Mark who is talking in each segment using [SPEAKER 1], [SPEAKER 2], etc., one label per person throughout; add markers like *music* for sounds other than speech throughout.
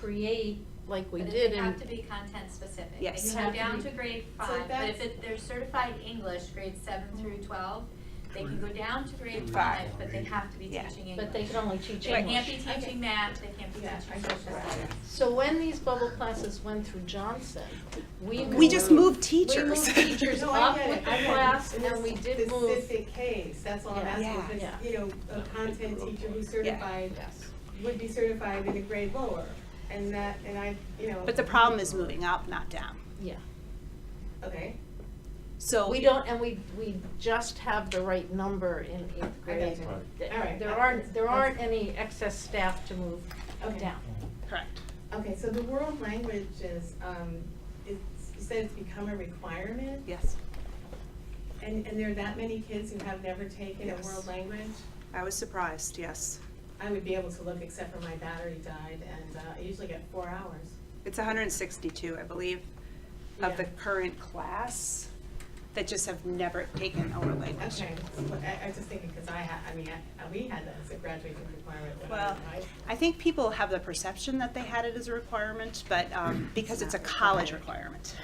[SPEAKER 1] create,
[SPEAKER 2] like we
[SPEAKER 3] But it-
[SPEAKER 2] did
[SPEAKER 3] They have to
[SPEAKER 2] in,
[SPEAKER 3] be content specific. They
[SPEAKER 4] Yes.
[SPEAKER 3] can
[SPEAKER 4] You
[SPEAKER 3] go
[SPEAKER 1] have to
[SPEAKER 3] down
[SPEAKER 1] be-
[SPEAKER 3] to grade
[SPEAKER 4] So
[SPEAKER 3] five, but
[SPEAKER 4] that's-
[SPEAKER 3] if it- they're certified English, grades seven through twelve, they can go down to grade
[SPEAKER 5] Grade
[SPEAKER 3] five,
[SPEAKER 5] five.
[SPEAKER 3] but they have to be
[SPEAKER 4] Yeah.
[SPEAKER 3] teaching English.
[SPEAKER 1] but they can only teach
[SPEAKER 3] They can't be
[SPEAKER 1] English.
[SPEAKER 3] teaching math, they can't be
[SPEAKER 1] Yeah, I guess
[SPEAKER 3] teaching social
[SPEAKER 1] that's-
[SPEAKER 3] studies.
[SPEAKER 2] so when these bubble classes went through Johnson, we.
[SPEAKER 4] We just moved
[SPEAKER 2] We
[SPEAKER 4] teachers.
[SPEAKER 2] moved teachers
[SPEAKER 6] *laughs* No, I
[SPEAKER 2] up
[SPEAKER 6] get
[SPEAKER 2] with
[SPEAKER 6] it.
[SPEAKER 2] the
[SPEAKER 6] I get it.
[SPEAKER 2] class,
[SPEAKER 6] In
[SPEAKER 2] and we
[SPEAKER 6] this
[SPEAKER 2] did move,
[SPEAKER 6] Specific case, that's all I'm
[SPEAKER 2] Yeah.
[SPEAKER 4] Yeah.
[SPEAKER 6] asking,
[SPEAKER 2] Yeah.
[SPEAKER 6] because, you know, a content teacher who's certified
[SPEAKER 2] yes.
[SPEAKER 6] would be certified in a grade lower, and that, and I, you know.
[SPEAKER 4] But the problem is moving up, not down.
[SPEAKER 2] yeah.
[SPEAKER 6] Okay,
[SPEAKER 4] So.
[SPEAKER 2] We don't, and we, we just have the right number in eighth grade.
[SPEAKER 6] you.
[SPEAKER 5] Right.
[SPEAKER 2] Th-
[SPEAKER 6] All right.
[SPEAKER 2] There aren't, there aren't any excess staff to move
[SPEAKER 6] Okay.
[SPEAKER 2] down.
[SPEAKER 4] Correct.
[SPEAKER 6] okay, so the world language is, um, it's, you said it's become a requirement?
[SPEAKER 4] Yes.
[SPEAKER 6] And, and there are that many kids who have never taken a
[SPEAKER 4] Yes.
[SPEAKER 6] world language?
[SPEAKER 4] I was surprised, yes.
[SPEAKER 6] I would be able to look, except for my battery died, and uh, I usually get four hours.
[SPEAKER 4] It's 162, I believe, of the
[SPEAKER 6] Yeah.
[SPEAKER 4] current class that just have never taken our language.
[SPEAKER 6] Okay, well, I, I was just thinking, because I ha, I mean, I- we had that as a graduating requirement when I
[SPEAKER 4] Well,
[SPEAKER 6] was in high school.
[SPEAKER 4] I think people have the perception that they had it as a requirement, but um, because it's a college requirement.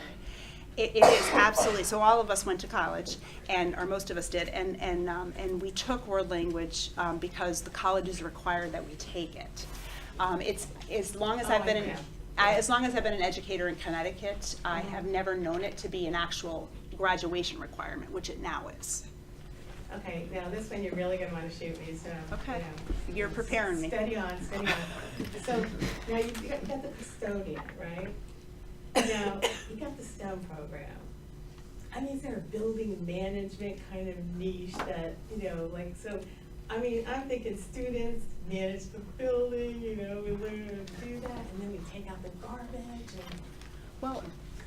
[SPEAKER 4] It it is absolutely, so all of us went to college, and, or most of us did, and, and, um, and we took world language um, because the colleges required that we take it. Um, It's, as long as
[SPEAKER 6] Oh,
[SPEAKER 4] I've been,
[SPEAKER 6] I
[SPEAKER 4] in-
[SPEAKER 6] know. Mm-hmm.
[SPEAKER 4] I- as long as I've been an educator in Connecticut, I have never known it to be an actual graduation requirement, which it now is.
[SPEAKER 6] Okay, now this one you're really gonna wanna shoot me, so. you
[SPEAKER 4] Okay.
[SPEAKER 6] know.
[SPEAKER 4] You're preparing me.
[SPEAKER 6] Steady on, steady on. So, now you you got you got the custodian, right? Now, you got the STEM program. I mean, is there a building management kind of niche that, you know, like, so, I mean, I'm thinking students manage the building, you know, we learn how to do that, and then we take out the garbage and.
[SPEAKER 4] Well,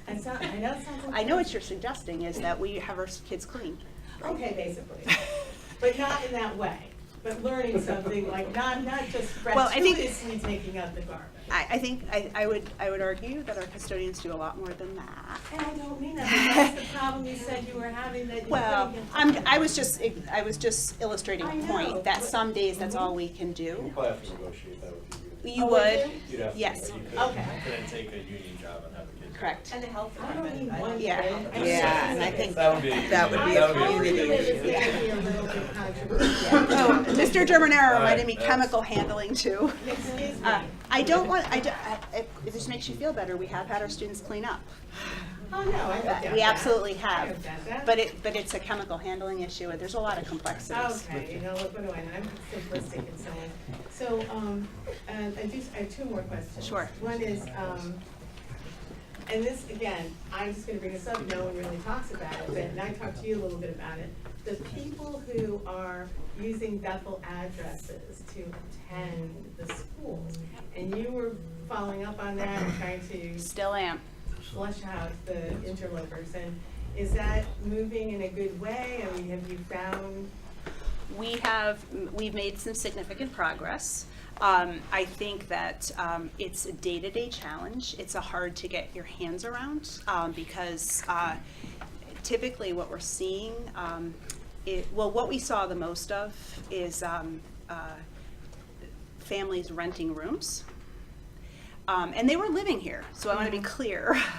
[SPEAKER 6] I sound, I know it sounds like.
[SPEAKER 4] I know what you're suggesting is that we have our kids
[SPEAKER 6] *laughs*
[SPEAKER 4] clean.
[SPEAKER 6] Okay, basically. But not in that way, but learning something, like not, not just
[SPEAKER 4] Well, I think-
[SPEAKER 6] gratuitously taking out the garbage.
[SPEAKER 4] I, I think, I, I would, I would argue that our custodians do a lot more than that.
[SPEAKER 6] And I don't
[SPEAKER 4] *laughs*
[SPEAKER 6] mean that, but that's the problem you said you were having that you couldn't.
[SPEAKER 4] Well,
[SPEAKER 6] get
[SPEAKER 4] I'm,
[SPEAKER 6] done.
[SPEAKER 4] I was just, I was just illustrating
[SPEAKER 6] I
[SPEAKER 4] a
[SPEAKER 6] know,
[SPEAKER 4] point, that
[SPEAKER 6] but-
[SPEAKER 4] some days that's all we can do.
[SPEAKER 5] You'd probably have to negotiate that with the union.
[SPEAKER 4] You
[SPEAKER 6] Oh,
[SPEAKER 4] would,
[SPEAKER 6] really?
[SPEAKER 5] You'd have to,
[SPEAKER 4] yes.
[SPEAKER 5] you couldn't-
[SPEAKER 6] Okay.
[SPEAKER 5] you Couldn't take a union job and have a kid.
[SPEAKER 4] correct.
[SPEAKER 7] And the health
[SPEAKER 6] I don't
[SPEAKER 7] department.
[SPEAKER 6] need
[SPEAKER 7] I-
[SPEAKER 6] one kid.
[SPEAKER 4] Yeah.
[SPEAKER 6] I mean,
[SPEAKER 7] Yeah, and I
[SPEAKER 6] that's-
[SPEAKER 7] think
[SPEAKER 5] That would be. a
[SPEAKER 7] That would
[SPEAKER 5] union-
[SPEAKER 7] be
[SPEAKER 5] that
[SPEAKER 7] a
[SPEAKER 5] would
[SPEAKER 7] really
[SPEAKER 5] union
[SPEAKER 7] big
[SPEAKER 5] issue.
[SPEAKER 7] issue.
[SPEAKER 6] I agree with this, the idea of controversial.
[SPEAKER 4] *coughs* Oh, Mr. Germanero
[SPEAKER 5] All right,
[SPEAKER 4] reminded me
[SPEAKER 5] that's-
[SPEAKER 4] chemical handling too.
[SPEAKER 6] Excuse me.
[SPEAKER 4] Uh, I don't want, I, don't- I- it, it just makes you feel better, we have had our students clean up.
[SPEAKER 6] Oh, no, I doubt that.
[SPEAKER 4] Uh, We absolutely
[SPEAKER 6] I
[SPEAKER 4] have,
[SPEAKER 6] don't doubt that.
[SPEAKER 4] but it, but it's a chemical handling issue, and there's a lot of complexities.
[SPEAKER 6] Okay, you know, look, what do I know, I'm simplistic and so on. So, um, and I do, I have two more questions.
[SPEAKER 4] Sure.
[SPEAKER 6] One is, um, and this, again, I'm just gonna bring this up, no one really talks about it, but, and I talked to you a little bit about it. The people who are using Bethel addresses to attend the schools, and you were following up on that and trying to
[SPEAKER 4] Still am.
[SPEAKER 6] flush out the interlopers, and is that moving in a good way? I mean, have you found
[SPEAKER 4] we have, we've made some significant progress. Um, I think that um, it's a day-to-day challenge. It's a hard to get your hands around um, because uh, typically what we're seeing, um, it, well, what we saw the most of is um, uh, families renting rooms. Um, and they were living here, so I want to be clear. *laughs*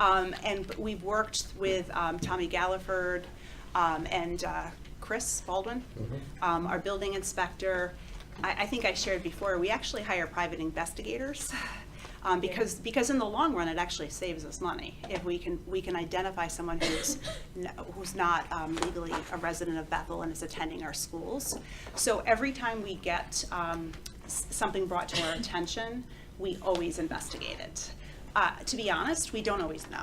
[SPEAKER 4] Um, and b- we've worked with um, Tommy Galliford um, and uh, Chris Baldwin, um, our building inspector. I, I think I shared before, we actually hire private investigators *laughs* um, because, because in the long run, it actually saves us money. If we can, we can identify someone who's, *laughs* n- who's not um, legally a resident of Bethel and is attending our schools. So every time we get um, s- something brought to our attention, we always investigate it. Uh, To be honest, we don't always know.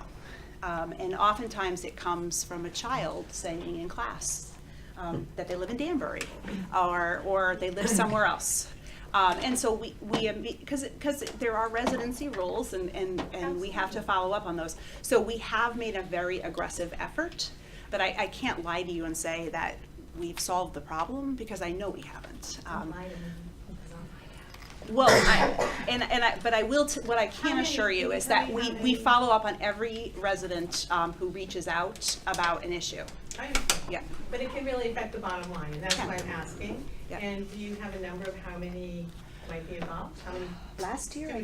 [SPEAKER 4] Um, And oftentimes, it comes from a child saying in class um, that they live in Danbury, or, or they live somewhere else. Um, And so we, we, um, because, because there are residency rules, and, and, and we have to follow up on those. So we have made a very aggressive effort, but I, I can't lie to you and say that we've solved the problem, because I know we haven't. Um,
[SPEAKER 6] lighting?
[SPEAKER 4] well, I, and, and I, but I will, t- what I
[SPEAKER 6] How
[SPEAKER 4] can
[SPEAKER 6] many-
[SPEAKER 4] assure you is
[SPEAKER 6] how
[SPEAKER 4] that
[SPEAKER 6] many-
[SPEAKER 4] we,
[SPEAKER 6] how
[SPEAKER 4] we
[SPEAKER 6] many?
[SPEAKER 4] follow up on every resident, um, who reaches out about an issue.
[SPEAKER 6] I-
[SPEAKER 4] Yeah.
[SPEAKER 6] But it can really affect the bottom line, and that's
[SPEAKER 4] Yeah.
[SPEAKER 6] why I'm asking.
[SPEAKER 4] Yeah.
[SPEAKER 6] And do you have a number of how many might be involved? How many
[SPEAKER 4] Last year, I